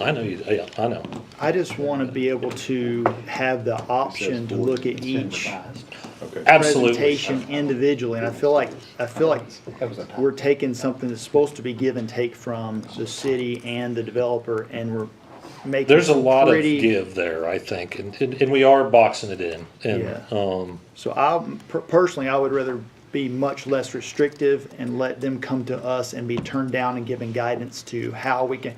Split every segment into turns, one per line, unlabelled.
I know you, yeah, I know.
I just want to be able to have the option to look at each
Okay.
Absolutely.
presentation individually, and I feel like, I feel like
That was a tie.
we're taking something that's supposed to be give and take from the city and the developer, and we're making.
There's a lot of
pretty-
give there, I think, and, and and we are boxing it in. And,
Yeah.
um,
So I, per- personally, I would rather be much less restrictive and let them come to us and be turned down and given guidance to how we can,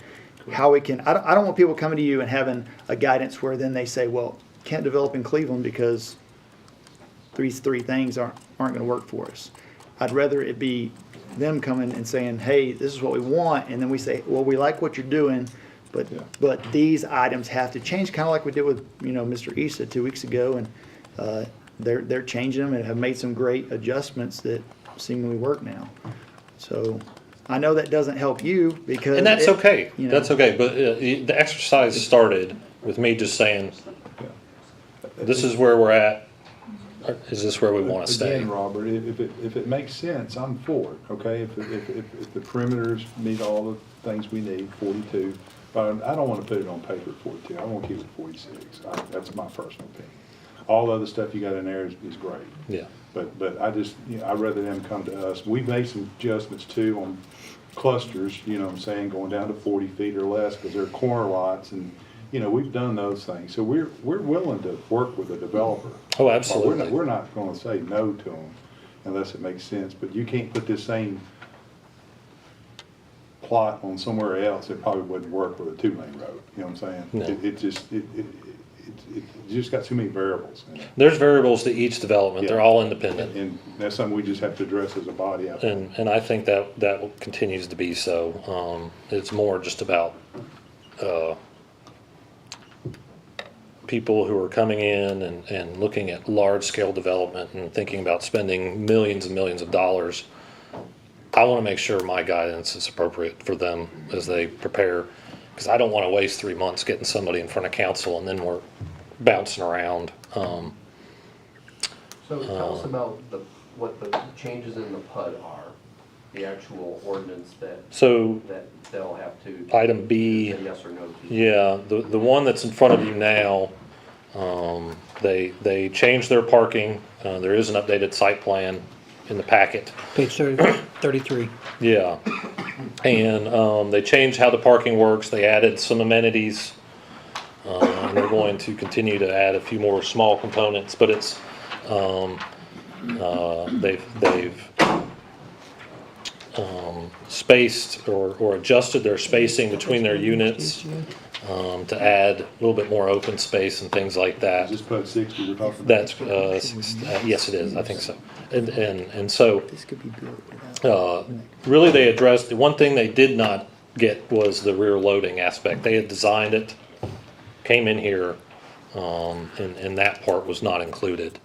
how we can, I don't, I don't want people coming to you and having a guidance where then they say, well, can't develop in Cleveland because these three things aren't, aren't gonna work for us. I'd rather it be them coming and saying, hey, this is what we want, and then we say, well, we like what you're doing, but,
Yeah.
but these items have to change, kinda like we did with, you know, Mr. Issa two weeks ago, and, uh, they're, they're changing them and have made some great adjustments that seemingly work now. So, I know that doesn't help you because.
and that's
it-
okay.
you know.
That's okay. But uh, the the exercise started with me just saying, this is where we're at. Or Is this where we want to stay?
Again, Robert, if, if it, if it makes sense, I'm for it, okay? If, if, if, if the perimeters meet all the things we need, forty-two, but I don't wanna put it on paper at forty-two, I wanna keep it at forty-six. I- That's my personal opinion. All the other stuff you got in there is, is great.
Yeah. Oh,
But, but I just, you know, I'd rather them come to us. We made some adjustments too on clusters, you know what I'm saying, going down to forty feet or less, because they're corner lots and, you know, we've done those things. So we're, we're willing to work with a developer.
Oh,
We're
absolutely.
not, we're not gonna say no to them unless it makes sense, but you can't put this same plot on somewhere else, it probably wouldn't work with a two-lane road, you know what I'm saying?
No.
It, it just, it, it, it, it just got too many variables in it.
There's variables to each development. They're
Yeah.
all independent.
And that's something we just have to address as a body, I think.
And, and I think that, that continues to be so. Um, it's more just about, uh, people who are coming in and, and looking at large-scale development and thinking about spending millions and millions of dollars. I want to make sure my guidance is appropriate for them as they prepare, because I don't want to waste three months getting somebody in front of council and then we're bouncing around. Um,
So tell us about the, what the changes in the PUD are, the actual ordinance that,
so
that they'll have to say
item B.
yes or no to.
Yeah, the, the one that's in front of you now, um, they, they changed their parking. Uh, there is an updated site plan in the packet.
Page 30 33.
Yeah. And, um, they changed how the parking works. They added some amenities. Uh, and they're going to continue to add a few more small components, but it's, um, uh, they've, they've, um, spaced or, or adjusted their spacing between their units um, to add a little bit more open space and things like
Is
that.
this PUD sixty we're talking about?
That's, uh, six- uh, yes, it is, I think so. And, and, and so,
This could be good without.
uh, really, they addressed, the one thing they did not get was the rear loading aspect. They had designed it, came in here, um, and, and that part was not included.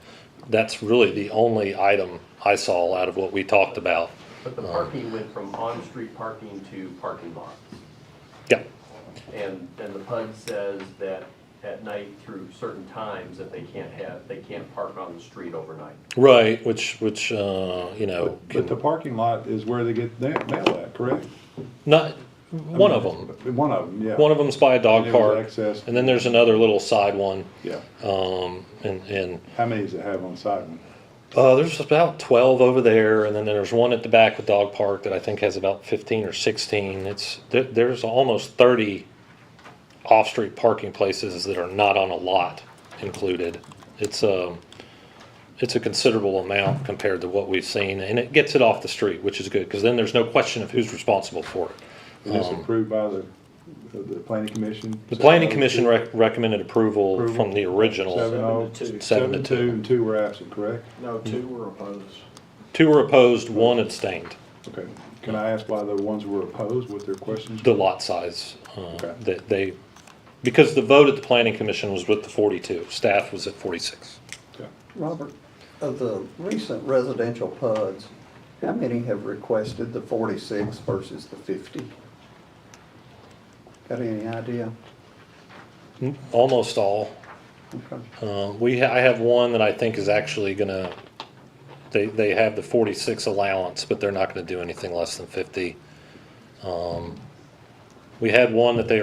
That's really the only item I saw out of what we talked about.
But the parking went from on-street parking to parking lots.
Yeah,
And, and the PUD says that at night through certain times that they can't have, they can't park on the street overnight.
right, which, which, uh, you know.
But the
can-
parking lot is where they get their mail at, correct?
Not, one of them.
One of them, yeah.
One of them's by a dog
And it was
park,
access.
and then there's another little side one.
Yeah.
Um, and, and,
How many does it have on side one?
uh, there's about twelve over there, and then there's one at the back with dog park that I think has about fifteen or sixteen. It's, there, there's almost thirty off-street parking places that are not on a lot included. It's, um, it's a considerable amount compared to what we've seen, and it gets it off the street, which is good, because then there's no question of who's responsible for it.
Is this approved by the, the planning commission?
Um, The planning commission rec- recommended approval
uh, Approval.
from the original.
Seven oh,
Seven to two.
Seven
seven
to
to two, and two were absent, correct?
No, two were opposed.
Two were opposed, one abstained.
Okay. Can I ask why the ones who were opposed, what their questions?
The lot size, uh,
Okay.
that they, because the vote at the planning commission was with the forty-two, staff was at forty-six.
Okay.
Robert, of the recent residential PUDs, how many have requested the forty-six versus the fifty? Got any idea?
Almost all.
Okay.
Uh, we, ha- I have one that I think is actually gonna, they, they have the forty-six allowance, but they're not gonna do anything less than fifty. Um, We had one that they